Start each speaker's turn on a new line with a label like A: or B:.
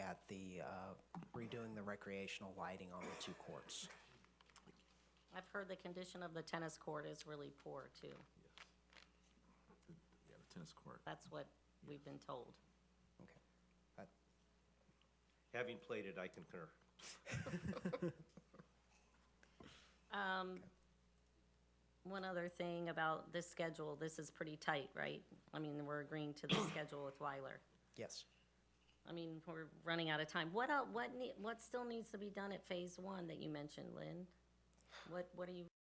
A: doing uh, the recreational lighting on the two courts.
B: I've heard the condition of the tennis court is really poor, too.
C: Yeah, the tennis court.
B: That's what we've been told.
A: Okay. That-
D: Having played it, I concur.
B: One other thing about this schedule, this is pretty tight, right? I mean, we're agreeing to the schedule with Weiler.
A: Yes.
B: I mean, we're running out of time. What, el- what, nee- what still needs to be done at Phase One that you mentioned, Lynn? What, what are you